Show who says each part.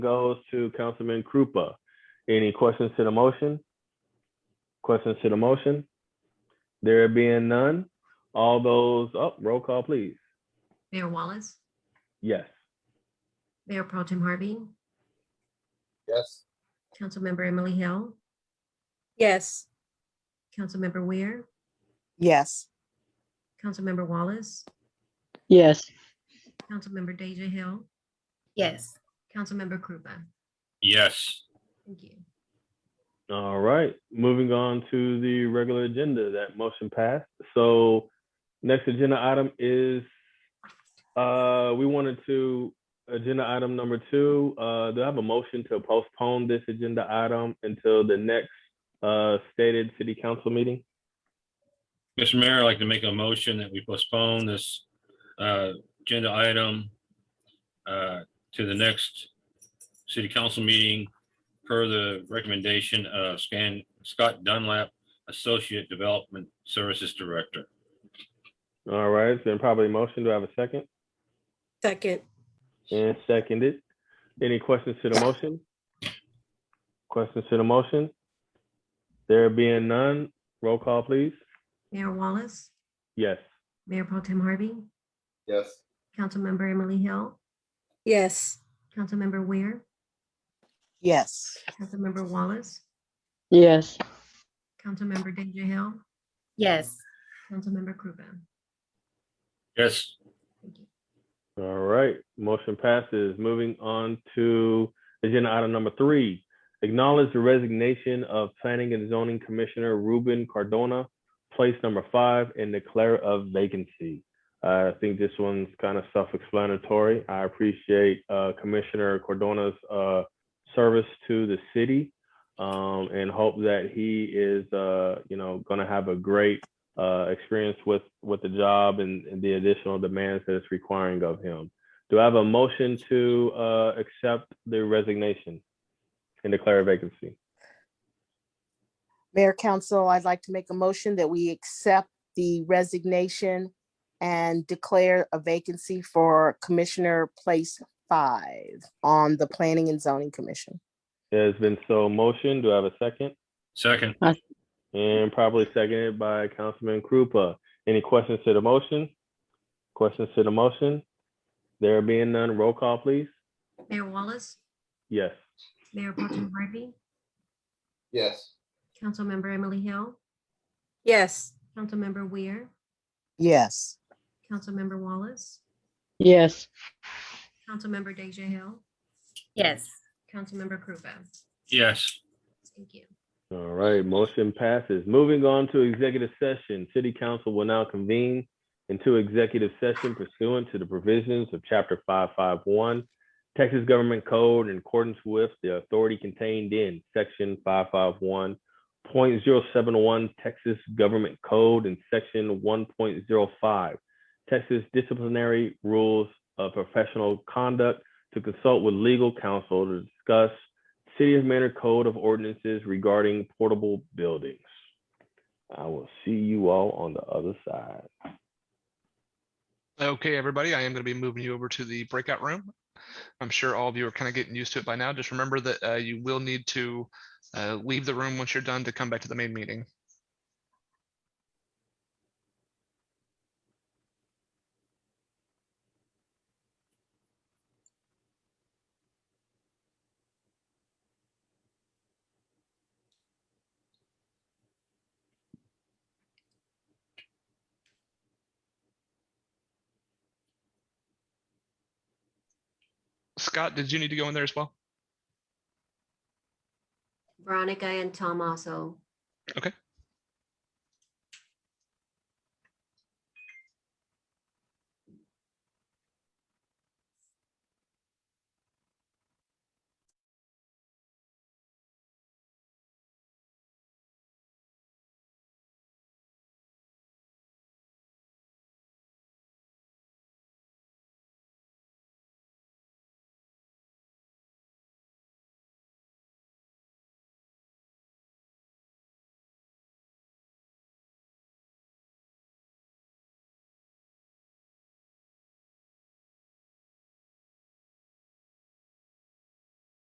Speaker 1: goes to Councilman Krupa. Any questions to the motion? Questions to the motion? There being none, all those, up. roll call, please.
Speaker 2: Mayor Wallace,
Speaker 1: Yes.
Speaker 2: Mayor Pro Tem Harvey,
Speaker 3: Yes.
Speaker 2: Councilmember Emily Hill,
Speaker 4: Yes.
Speaker 2: Councilmember Weir,
Speaker 5: Yes.
Speaker 2: Councilmember Wallace,
Speaker 6: Yes,
Speaker 2: Councilmember Deja Hill,
Speaker 4: Yes.
Speaker 2: Councilmember Krupa.
Speaker 3: Yes.
Speaker 2: Thank you.
Speaker 1: All right, moving on to the regular agenda, that motion passed. So next agenda item is, uh, we wanted to, agenda item number two, uh, do I have a motion to postpone this agenda item until the next, uh, stated city council meeting?
Speaker 3: Mr. Mayor, I'd like to make a motion that we postpone this uh, agenda item uh, to the next city council meeting per the recommendation of Scan- Scott Dunlap, Associate Development Services Director.
Speaker 1: All right, it's been probably motion. Do I have a second?
Speaker 4: Second.
Speaker 1: And seconded. Any questions to the motion? Questions to the motion? There being none, roll call, please.
Speaker 2: Mayor Wallace,
Speaker 1: Yes.
Speaker 2: Mayor Pro Tem Harvey,
Speaker 7: Yes,
Speaker 2: Councilmember Emily Hill,
Speaker 4: Yes.
Speaker 2: Councilmember Weir,
Speaker 5: Yes.
Speaker 2: Councilmember Wallace,
Speaker 6: yes,
Speaker 2: Councilmember Deja Hill,
Speaker 4: Yes.
Speaker 2: Councilmember Krupa.
Speaker 3: Yes,
Speaker 2: Thank you.
Speaker 1: All right, motion passes. Moving on to agenda item number three. Acknowledge the resignation of Planning and Zoning Commissioner Ruben Cardona, place number five, and declare a vacancy. Uh, I think this one's kind of self-explanatory. I appreciate uh, Commissioner Cardona's uh, service to the city um, and hope that he is, uh, you know, going to have a great uh, experience with with the job and, and the additional demands that it's requiring of him. Do I have a motion to uh, accept the resignation and declare a vacancy?
Speaker 5: Mayor Council, I'd like to make a motion that we accept the resignation and declare a vacancy for Commissioner Place Five on the Planning and Zoning Commission.
Speaker 1: It has been so motion. Do I have a second?
Speaker 3: second.
Speaker 1: And probably seconded by Councilman Krupa. Any questions to the motion? Questions to the motion? There being none, roll call, please.
Speaker 2: Mayor Wallace,
Speaker 1: Yes.
Speaker 2: Mayor Pro Tem Harvey,
Speaker 7: yes,
Speaker 2: Councilmember Emily Hill,
Speaker 4: Yes.
Speaker 2: Councilmember Weir,
Speaker 5: Yes.
Speaker 2: Councilmember Wallace,
Speaker 6: yes,
Speaker 2: Councilmember Deja Hill,
Speaker 4: Yes.
Speaker 2: Councilmember Krupa.
Speaker 3: Yes,
Speaker 2: Thank you.
Speaker 1: All right, motion passes. Moving on to executive session. City Council will now convene into executive session pursuant to the provisions of Chapter 551, Texas Government Code in accordance with the authority contained in Section 551.071 Texas Government Code and Section 1.05 Texas Disciplinary Rules of Professional Conduct to consult with legal counsel to discuss City of Manor Code of Ordinances regarding portable buildings. I will see you all on the other side.
Speaker 8: Okay, everybody, I am going to be moving you over to the breakout room. I'm sure all of you are kind of getting used to it by now. Just remember that uh, you will need to uh, leave the room once you're done to come back to the main meeting. Scott, did you need to go in there as well?
Speaker 2: Veronica and Tom also.
Speaker 8: Okay,